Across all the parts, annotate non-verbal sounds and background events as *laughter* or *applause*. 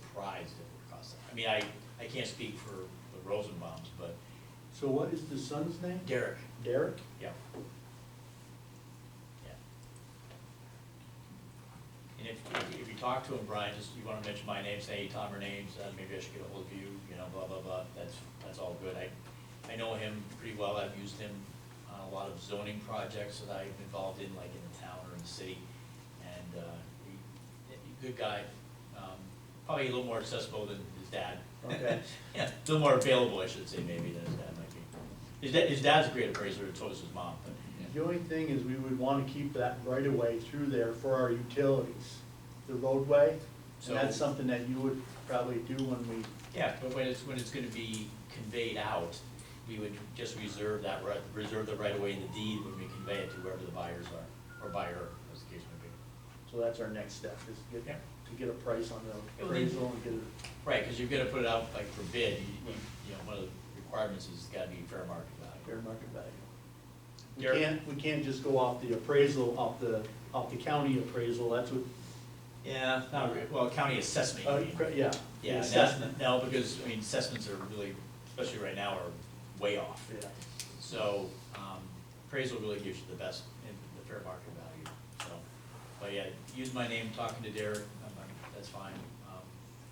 surprised it would cost that. I mean, I, I can't speak for the Rosenbaums, but So what is the son's name? Derek, Derek? yeah. Yeah. And if, if- if you talk to him, Brian, just, you wanna mention my name, say, hey, Tom, her name's, uh, maybe I should get ahold of you, you know, blah, blah, blah, that's, that's all good. I, I know him pretty well, I've used him on a lot of zoning projects that I've been involved in, like in the town or in the city. And, uh, he, he- good guy, um, probably a little more accessible than his dad. *laughs* Okay. Yeah, a little more available, I should say, maybe, than his dad might be. His dad, his dad's a great appraiser, so is his mom, but, The only thing is we would want to keep that right of way through there for our utilities, the roadway. So- And that's something that you would probably do when we, yeah, but when it's, when it's gonna be conveyed out, we would just reserve that right, reserve the right of way in the deed when we convey it to whoever the buyers are, or buyer, as the case may so that's our next step, is to get, Yeah. to get a price on the Well, then- appraisal and get it. be. Right, cause you're gonna put it out like for bid, you, you- you know, one of the requirements is it's gotta be fair market fair value. market value. We Derek? can't, we can't just go off the appraisal, off the, off the county appraisal, that's what, Yeah, not re well, county assessment. you uh, mean. cra- yeah. the Yeah, assessment. no, no, because, I mean, assessments are really, especially right now, are way off. Yeah. So, um, appraisal really gives you the best, in the fair market value, so. But yeah, use my name, talking to Derek, I'm like, that's fine, um,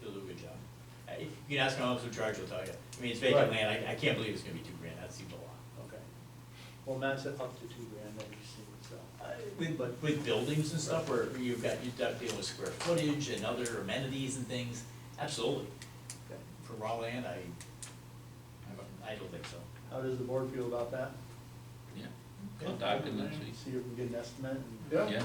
he'll do a good job. Uh, if You can ask my officer in charge, he'll tell you. I mean, it's vacant Right. land, I, I can't believe it's gonna be two grand, that seems a lot. Okay. Well, Matt's at up to two grand that he's seen, so. Uh, With, but with buildings and stuff, where you've got, you've got dealing with square footage and other amenities and things, absolutely. Okay. For raw land, I, I don't- I don't think so. How does the board feel about that? Yeah, contact him and see, See if we can get an estimate and. yeah,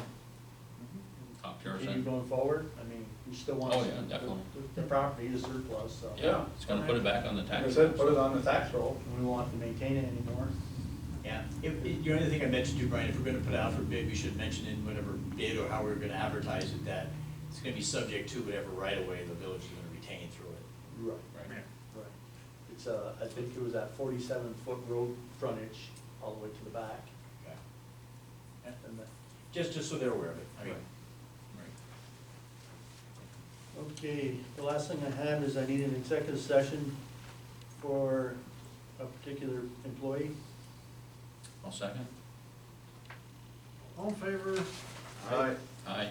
talk to our Continue son. going forward, I mean, we still want. Oh, to- yeah, definitely. The the property is surplus, so. Yeah, it's gonna put it back on the Like I tax. said, put it on the tax roll, we won't have to maintain it anymore. Yeah, if, if- the only thing I mentioned to you, Brian, if we're gonna put out for bid, we should mention in whatever bid or how we're gonna advertise it, that it's gonna be subject to whatever right of way the village is gonna retain through it. Right, Mm-hmm. Right. right. It's uh, I think it was that forty-seven foot road frontage all the way to the back. Okay. Yeah, And that- Just, just so they're aware of it, I mean, Right. Okay, the last thing I have is I need an executive session for a particular employee. I'll second. All in favor? Aye. Aye.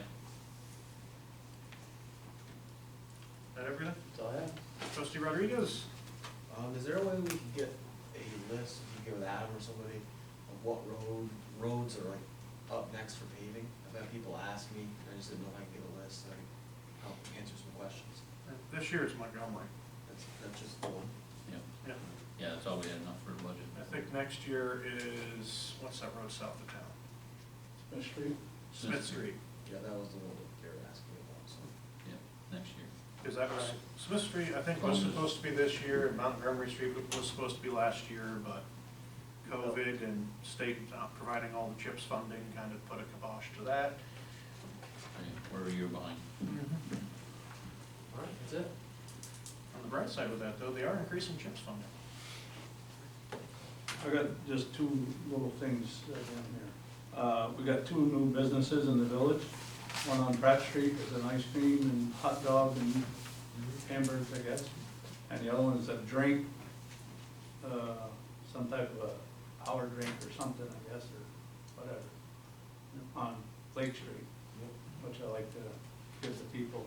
That everything? That's all I have. Trustee Rodriguez? Um, is there a way we could get a list, you can give it to Adam or somebody, of what road, roads are like up next for paving? I've had people ask me, I just didn't know if I could get a list, that could help answer some questions. This year it's Montgomery. That's, that's just the one. Yeah, Yeah. yeah, that's all we had enough for the budget. I think next year is, what's that road south of town? Smith Street? Smith Street. Yeah, that was the one that they were asking me about, so. Yeah, next year. Because that was, Smith Street, I think was supposed to be this year, and Montgomery Street was supposed to be last year, but COVID and state not providing all the CHIPS funding kind of put a kibosh to that. Yeah, Where are you behind? Mm-hmm. All right, that's it. On the bright side of that, though, they are increasing CHIPS funding. I got just two little things uh, down here. Uh, we got two new businesses in the village. One on Pratt Street is an ice cream and hot dog and hamburgers, I guess. And the other one is a drink, uh, some type of a hour drink or something, I guess, or whatever, on Lake Street, which I like to give the people.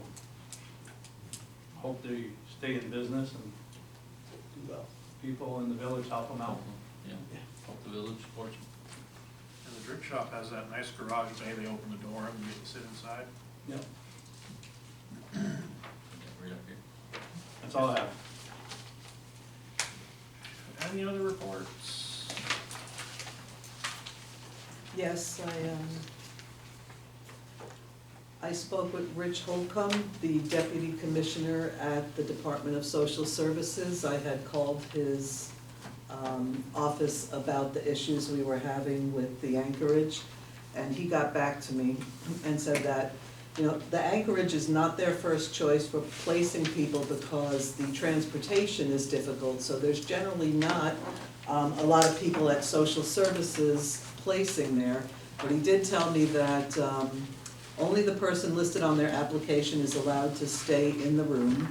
Hope they stay in business and Do well. people in the village help them out. Yeah, hope the village supports them. And the drink shop has that nice garage bay, they open the door and you get to sit inside. Yep. Yeah, right up here. That's all I have. Any other reports? Yes, I, um, I spoke with Rich Holcomb, the deputy commissioner at the Department of Social Services. I had called his, um, office about the issues we were having with the anchorage. And he got back to me and said that, you know, the anchorage is not their first choice for placing people because the transportation is difficult. So there's generally not um, a lot of people at social services placing there. But he did tell me that, um, only the person listed on their application is allowed to stay in the room.